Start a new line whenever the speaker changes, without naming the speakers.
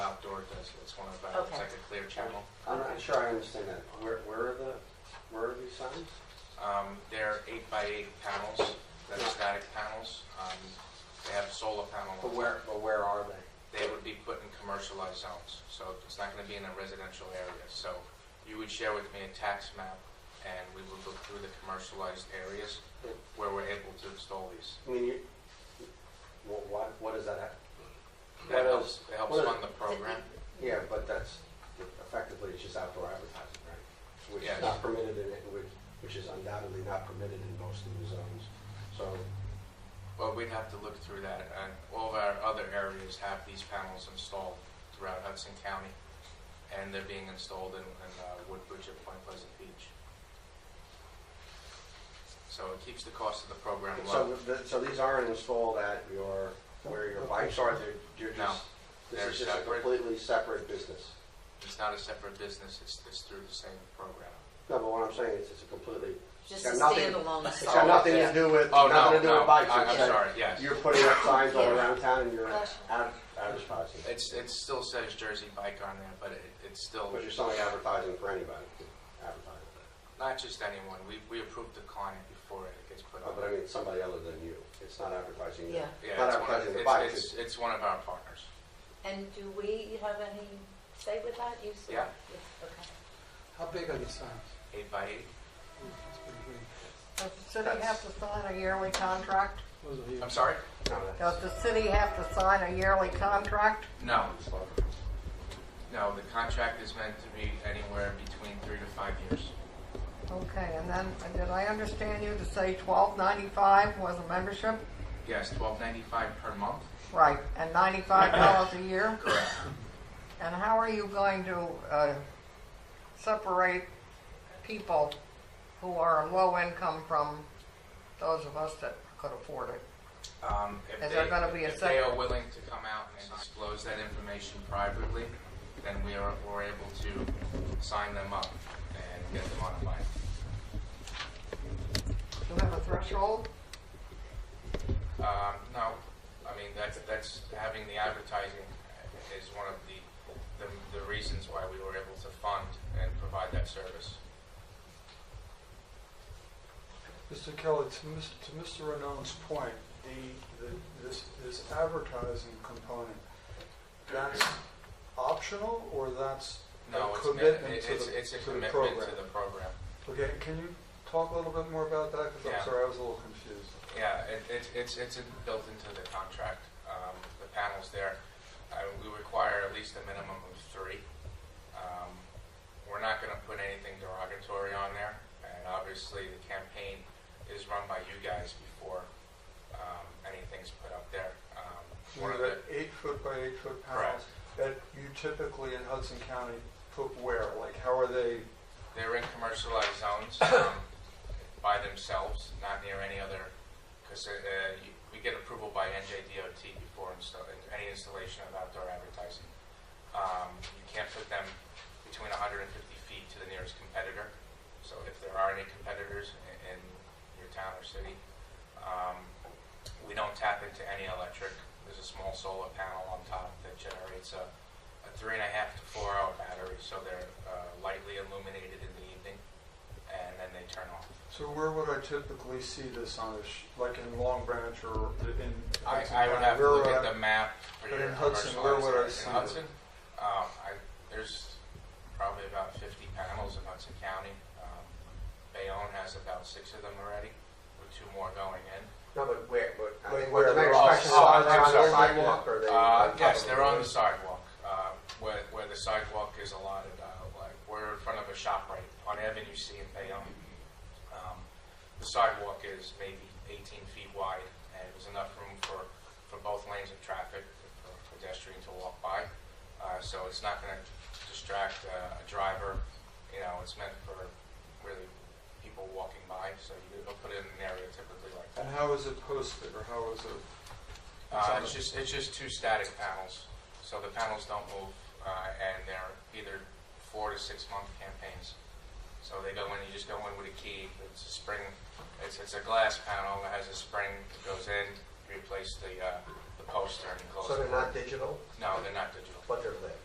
outdoor does, it's one of, uh, it's
Okay.
like a clear channel.
I'm not sure I understand that. Where, where are the, where are these signs?
Um, They're eight by eight panels, that are
Yeah.
static panels. Um, They have solar panel.
But where, but where are they?
They would be put in commercialized zones, so it's not going to be in a residential area. So you would share with me a tax map, and we would look through the commercialized areas where we're able to install these.
I mean, you, wha- what, what does that have?
That
What
helps,
else?
that helps
What-
fund the program.
Yeah, but that's, effectively, it's just outdoor advertising, right? Which
Yes.
is not permitted in, it, which, which is undoubtedly not permitted in most of the zones. So,
Well, we'd have to look through that, and all of our other areas have these panels installed throughout Hudson County, and they're being installed in, in uh, Woodbridge at Point Pleasant Beach. So it keeps the cost of the program low.
so, the- so these aren't installed at your, where your bikes are, they're, you're
No,
just, this
they're
is just a
separate.
completely separate business.
It's not a separate business, it's, it's through the same program.
No, but what I'm saying is it's a completely,
Just a
got nothing-
standalone
it's got
sign.
nothing to
yeah.
do with,
Oh,
nothing
no,
to do
no,
with bikes.
I-
It's
I'm
that
sorry, yes.
You're putting up signs all around town and you're ad- advertising.
It's, it still says Jersey Bike on there, but it, it's still,
But you're selling advertising for anybody, advertising.
not just anyone, we, we approve the client before it gets put
Uh, But I
on.
mean, it's somebody other than you. It's not advertising. you.
Yeah.
Yeah,
Not
it's one of-
advertising the
it's-
bikes.
It's, it's one of our partners.
And do we have any say with that? You said-
Yeah.
Okay.
How big are these signs?
Eight by eight,
Ooh, that's pretty big.
Does the city have to sign a yearly contract?
Those are huge.
I'm sorry?
No, that's-
Does the city have to sign a yearly contract?
No, No, the contract is meant to be anywhere between three to five years.
Okay, and then, and did I understand you to say twelve ninety-five was a membership?
Yes, twelve ninety-five per month.
Right, and ninety-five dollars a year?
Correct.
And how are you going to, uh, separate people who are low income from those of us that could afford it?
Um, if
Is there
they-
gonna be a
If they are
second?
willing to come out and disclose that information privately, then we are, we're able to sign them up and get them on a bike.
Do you have a threshold?
Um, no, I mean, that's, that's, having the advertising is one of the, the, the reasons why we were able to fund and provide that service.
Mr. Kelly, to Mis- to Mr. Renone's point, the, the, this, this advertising component, that's optional or that's
No,
a
it's,
commitment
it-
to
it's,
the,
it's a
to the
commitment
program?
to the program.
Okay, can you talk a little bit more about that? Because
Yeah.
I'm sorry, I was a little confused.
Yeah, it, it's, it's, it's in- built into the contract, um, the panels there. Uh, we require at least a minimum of three. Um, we're not gonna put anything derogatory on there, and obviously the campaign is run by you guys before, um, anything's put up there. Um,
You
one of
have
the,
eight foot by eight foot panels that you typically in Hudson County put where? Like, how are they,
they're in commercialized zones, um, by themselves, not near any other, cause, uh, you- we get approval by NJDOT before install, any installation of outdoor advertising. Um, you can't put them between hundred and fifty feet to the nearest competitor, so if there are any competitors i- in your town or city, um, we don't tap into any electric. There's a small solar panel on top that generates a, a three and a half to four hour battery, so they're uh, lightly illuminated in the evening, and then they turn off.
so where would I typically see this on a, sh- like in Long Branch or in?
I,
Hudson
I would
County?
have to
Where
look
would
at
I-
the map. for
But
your
in Hudson, where would I
commercialized
see
area. In
it?
Hudson, um, I, there's probably about 50 panels in Hudson County. Um, Bayonne has about six of them already, with two more going in.
No, but where, but. I
Like
think
where
what the
they're
next
all-
question is,
oh,
are they
I'm
on the
sorry.
sidewalk or are they? on
Uh,
top
yes,
of
they're on the
roof?
sidewalk, uh, where, where the sidewalk is allotted, uh, like, we're in front of a shop right on Avenue C in Bayonne. Um, the sidewalk is maybe eighteen feet wide, and it was enough room for, for both lanes of traffic, for pedestrians to walk by. Uh, so it's not gonna distract uh, a driver, you know, it's meant for really people walking by, so you don't put it in an area typically like that.
And how is it posted, or how is it? It's
Uh,
on
it's
the-
just, it's just two static panels, so the panels don't move, uh, and they're either four to six month campaigns. So they go in, you just go in with a key, it's a spring, it's, it's a glass panel, it has a spring that goes in, you replace the, uh, the poster and you close
So they're
it.
not digital,
No, they're not digital.
but they're lit.